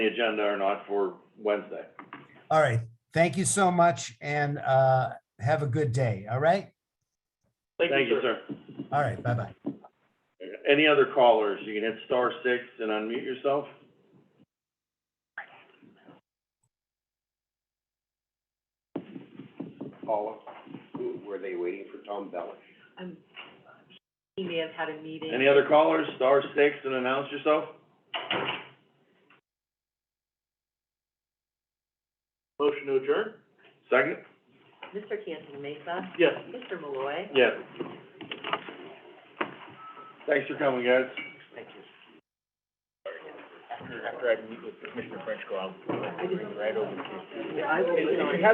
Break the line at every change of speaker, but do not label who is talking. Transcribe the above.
the agenda or not for Wednesday.
All right. Thank you so much and uh, have a good day. All right?
Thank you, sir.
All right. Bye-bye.
Any other callers, you can hit star six and unmute yourself.
Paula, who- were they waiting for Tom Bellis?
I'm, Um, he may have had a meeting.
Any other callers, star six and announce yourself?
Motion to adjourn?
Second?
Mr. Cantala Mesa,
Yes.
Mr. Malloy.
Yes. Thanks for coming, guys.
After I meet with Commissioner Frenchco, I'll
I just-
right over to you.
I will be on it.